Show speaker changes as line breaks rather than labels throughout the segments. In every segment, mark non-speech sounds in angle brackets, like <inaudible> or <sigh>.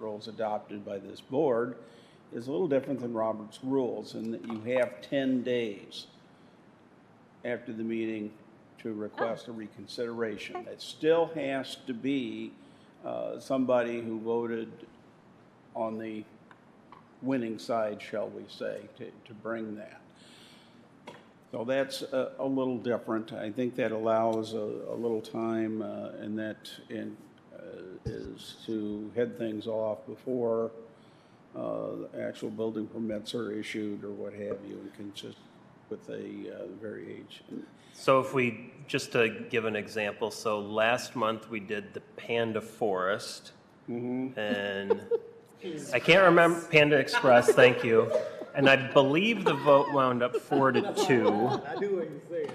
articles adopted by this board is a little different than Robert's rules in that you have 10 days after the meeting to request a reconsideration. It still has to be uh, somebody who voted on the winning side, shall we say, to, to bring that. So that's a, a little different. I think that allows a, a little time, uh, and that, and, uh, is to head things off before, uh, the actual building permits are issued or what have you, and consist with a, uh, variation.
So if we, just to give an example, so last month we did the Panda Forest. And I can't remember, Panda Express, thank you. And I believe the vote wound up four to two.
I knew what you were saying.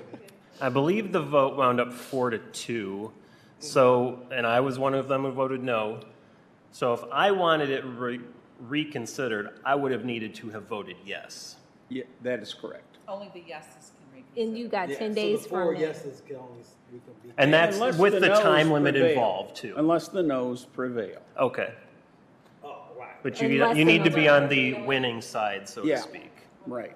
I believe the vote wound up four to two. So, and I was one of them who voted no. So if I wanted it re- reconsidered, I would have needed to have voted yes.
Yeah, that is correct.
Only the yeses can read.
And you got
So
ten
the
days
Four
from it. Uh,
yeses can only, s- we can be.
And that's
Unless
with the
noes
time limit
prevail.
involved too.
Unless the noes prevail.
Okay.
Oh, right.
But you,
Unless
you need to be
another-
on the winning side, so
Yeah.
to speak.
Right.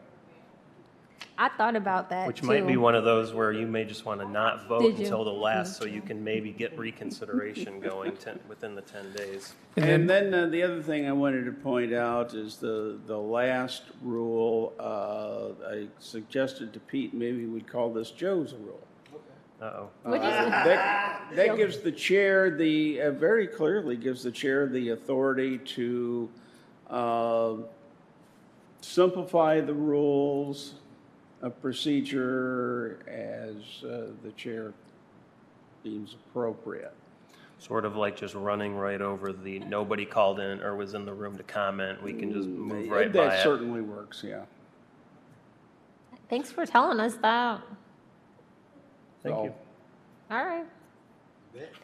I thought about that
Which
too.
might be one of those where you may just want to not vote
Did you?
until the last, so you can maybe get
<laughs>
reconsideration going ten, within the ten days.
And then uh, the other thing I wanted to point out is the, the last rule, uh, I suggested to Pete, maybe we'd call this Joe's rule.
Uh-oh.
What is it?
<laughs>
That, that gives the chair the, uh, very clearly gives the chair the authority to uh, simplify the rules of procedure as uh, the chair deems appropriate.
Sort of like just running right over the, nobody called in or was in the room to comment, we can just move right by
That
it.
certainly works, yeah.
Thanks for telling us that.
Thank you.
So-
All right.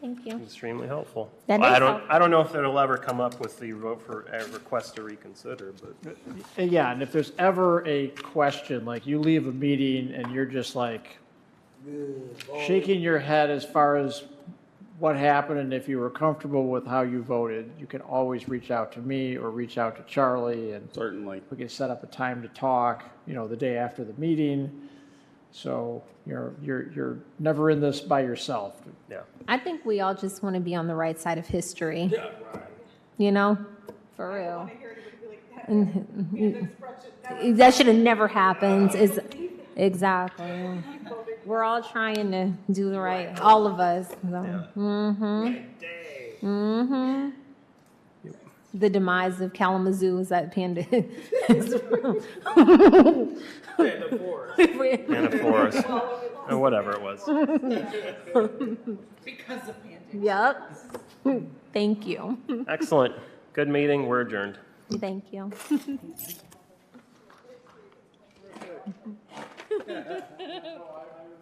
Thank you.
Extremely helpful.
That
Well, I
is
don't,
helpful.
I don't know if it'll ever come up with the vote for, a request to reconsider, but
And yeah, and if there's ever a question, like you leave a meeting and you're just like shaking your head as far as what happened and if you were comfortable with how you voted, you can always reach out to me or reach out to Charlie and
Certainly.
we can set up a time to talk, you know, the day after the meeting. So you're, you're, you're never in this by yourself.
yeah.
I think we all just want to be on the right side of history. You know, for real. <laughs> And- That should have never happened. Is exactly. We're all trying to do the right, all of us. so. Mm-hmm. hmm? The demise of Kalamazoo is that <laughs> Panda.
<laughs> And a
<laughs>
forest, or whatever it was.
Because of Andy.
<laughs> Yep. Thank you.
Excellent. Good meeting. We're adjourned.
Thank you. <laughs>